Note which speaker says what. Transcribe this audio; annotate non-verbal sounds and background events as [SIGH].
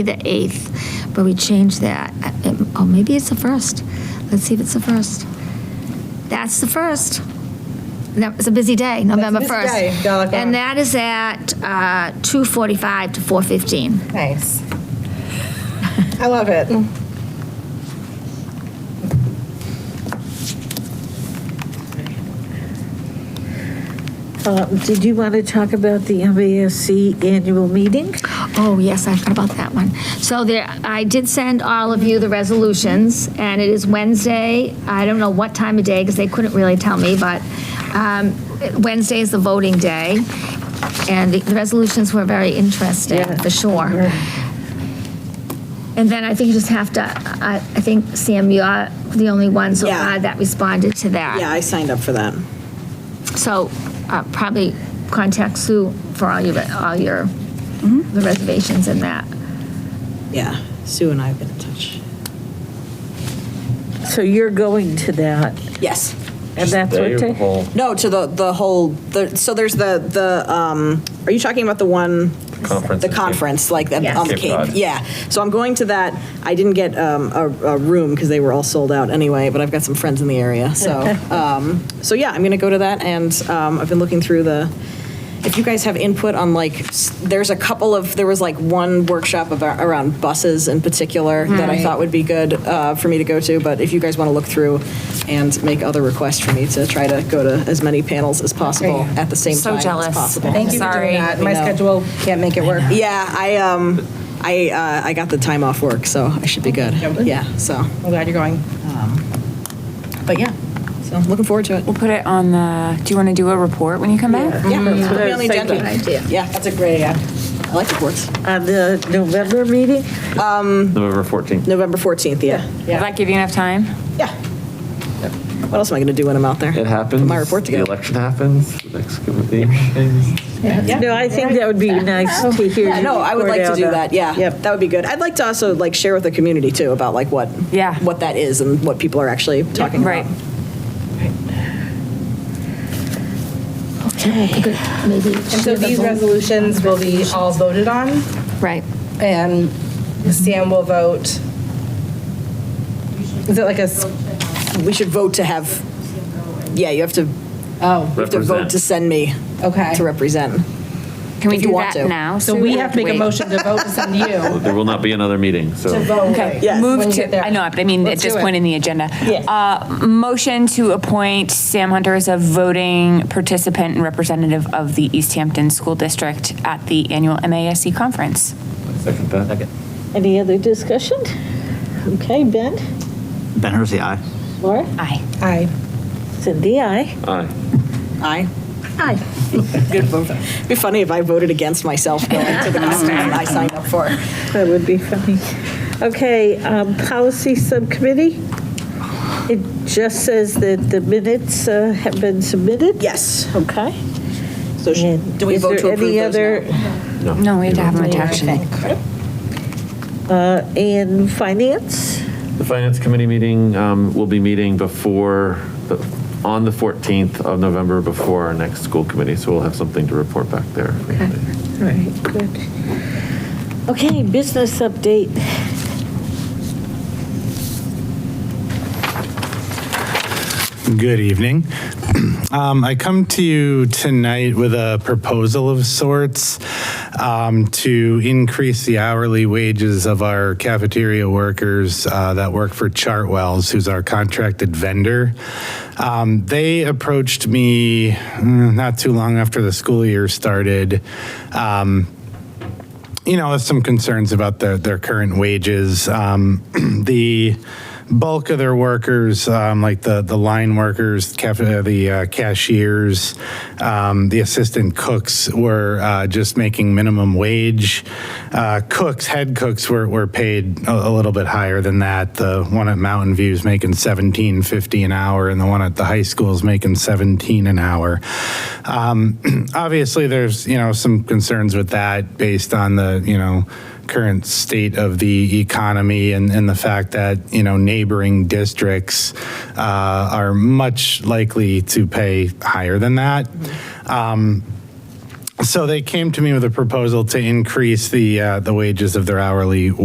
Speaker 1: the 8th, but we changed that. Uh, it- Oh, maybe it's the 1st. Let's see if it's the 1st. That's the 1st. That was a busy day, November
Speaker 2: busy
Speaker 1: 1st.
Speaker 2: day, Dollar General.
Speaker 1: And that is at uh, 2:45 to 4:15.
Speaker 2: Nice. I love it.
Speaker 3: Uh, Did you want to talk about the MASC annual meeting?
Speaker 1: Oh, yes, I forgot about that one. So there, I did send all of you the resolutions, and it is Wednesday. I don't know what time of day, because they couldn't really tell me, but um, Wednesday is the voting day, and the the resolutions were very interesting, for sure. And then I think you just have to, I I think, Sam, you're the only one so
Speaker 4: Yeah.
Speaker 1: far that responded to that.
Speaker 4: Yeah, I signed up for that.
Speaker 1: So uh, probably contact Sue for all your, all your,
Speaker 4: Mm-hmm.
Speaker 1: the reservations and that.
Speaker 4: Yeah, Sue and I have been in touch.
Speaker 3: So you're going to that,
Speaker 4: Yes.
Speaker 3: and that's
Speaker 5: They
Speaker 3: what
Speaker 5: the
Speaker 3: they,
Speaker 5: whole
Speaker 4: No, to the, the whole, the, so there's the, the, um, are you talking about the one?
Speaker 5: Conference.
Speaker 4: The conference, like
Speaker 1: Yes.
Speaker 4: on the
Speaker 5: Cape
Speaker 4: Cape,
Speaker 5: Cod.
Speaker 4: yeah. So I'm going to that. I didn't get, um, a, a room because they were all sold out anyway, but I've got some friends in the area, so,
Speaker 2: [LAUGHS]
Speaker 4: um, so yeah, I'm gonna go to that and, um, I've been looking through the, if you guys have input on like, s- there's a couple of, there was like one workshop about, around buses in particular that I thought would be good uh, for me to go to, but if you guys want to look through and make other requests for me to try to go to as many panels as possible at the same time
Speaker 6: So
Speaker 4: as
Speaker 6: jealous.
Speaker 4: possible.
Speaker 2: Thank you for
Speaker 6: Sorry.
Speaker 2: doing that.
Speaker 4: I
Speaker 2: My
Speaker 4: know.
Speaker 2: schedule can't make it work.
Speaker 4: Yeah, I, um, I, uh, I got the time off work, so I should be good.
Speaker 2: Yeah.
Speaker 4: Yeah, so,
Speaker 2: I'm glad you're going.
Speaker 4: Um, but yeah, so I'm looking forward to it.
Speaker 6: We'll put it on the, do you want to do a report when you come back?
Speaker 4: Yeah,
Speaker 3: that's what
Speaker 4: put
Speaker 3: I
Speaker 4: me
Speaker 3: was
Speaker 4: on the
Speaker 3: thinking.
Speaker 4: agenda. Yeah, that's a great idea. Mm-hmm. I like reports.
Speaker 3: on Uh, the November meeting?
Speaker 6: Mm-hmm.
Speaker 5: November 14th.
Speaker 4: November 14th, yeah.
Speaker 6: Will that give you enough time?
Speaker 4: Yeah. What else am I going to do when I'm out there?
Speaker 5: It happens.
Speaker 4: Put my report
Speaker 5: The
Speaker 4: together.
Speaker 5: election happens, the next committee things.
Speaker 3: No, I think that would be nice to hear.
Speaker 4: Oh. Yeah,
Speaker 3: you
Speaker 4: no, I would
Speaker 3: report
Speaker 4: like to
Speaker 3: out
Speaker 4: do
Speaker 3: on-
Speaker 4: that, yeah.
Speaker 3: Yep.
Speaker 4: That would be good. I'd like to also like share with the community too about like what,
Speaker 6: Yeah.
Speaker 4: what that is and what people are actually talking
Speaker 6: Right.
Speaker 4: about.
Speaker 1: Good, Maybe.
Speaker 2: And so these resolutions will be all voted on,
Speaker 6: Right.
Speaker 2: and Sam will vote. Is it like a, s-
Speaker 4: We should vote to have, yeah, you have to,
Speaker 2: oh,
Speaker 4: you have to vote to
Speaker 5: Represent.
Speaker 4: send me
Speaker 2: okay.
Speaker 4: to represent.
Speaker 6: Can we
Speaker 4: If you
Speaker 6: do
Speaker 4: want
Speaker 6: that
Speaker 4: to.
Speaker 6: now?
Speaker 2: So
Speaker 6: Sue,
Speaker 2: we
Speaker 6: or
Speaker 2: have to make a
Speaker 6: wait?
Speaker 2: motion to vote to send you to
Speaker 5: There will not be another meeting, so
Speaker 2: vote.
Speaker 6: Okay,
Speaker 4: Yes.
Speaker 2: When
Speaker 6: move
Speaker 2: you get
Speaker 6: to,
Speaker 2: there.
Speaker 6: I know, but I mean, at
Speaker 2: Let's
Speaker 6: this
Speaker 2: do it.
Speaker 6: point in the agenda.
Speaker 2: Yes.
Speaker 6: Uh, Motion to appoint Sam Hunter as a voting participant and representative of the East Hampton School District at the annual MASC conference.
Speaker 5: second that.
Speaker 3: Any other discussion? Okay, Ben,
Speaker 7: Ben Hersey, aye.
Speaker 3: Laura,
Speaker 6: Aye.
Speaker 2: Aye.
Speaker 3: Cindy, I.
Speaker 5: Aye.
Speaker 4: Aye.
Speaker 1: Aye.
Speaker 4: [LAUGHS] Good vote. It'd be funny if I voted against myself going to the conference I signed up for.
Speaker 3: That would be funny. Okay, um, policy subcommittee? It just says that the minutes uh, have been submitted?
Speaker 4: Yes.
Speaker 3: Okay.
Speaker 4: So sh-
Speaker 3: And
Speaker 4: do we
Speaker 3: is
Speaker 4: vote
Speaker 3: there
Speaker 4: to approve
Speaker 3: any
Speaker 4: those
Speaker 3: other-
Speaker 4: now?
Speaker 6: No, we have to have them attached.
Speaker 3: Uh, And finance?
Speaker 5: The Finance Committee meeting um, will be meeting before, the- on the 14th of November, before our next school committee, so we'll have something to report back there.
Speaker 3: Right, good. Okay, business update.
Speaker 8: Good evening. [CLEARS THROAT] Um, I come to you tonight with a proposal of sorts um, to increase the hourly wages of our cafeteria workers uh, that work for Chartwells, who's our contracted vendor. Um, They approached me mm, not too long after the school year started um, you know, with some concerns about their, their current wages. Um, [CLEARS THROAT] the bulk of their workers, um, like the, the line workers, caf- uh, the uh, cashiers, um, the assistant cooks were uh, just making minimum wage. Uh, cooks, head cooks were, were paid a, a little bit higher than that. The one at Mountain View is making 17.50 an hour and the one at the high school is making 17 an hour. Um, [CLEARS THROAT] obviously, there's you know some concerns with that based on the you know current state of the economy and, and the fact that you know neighboring districts uh, are much likely to pay higher than that. Um, So they came to me with a proposal to increase the, uh, the wages of their hourly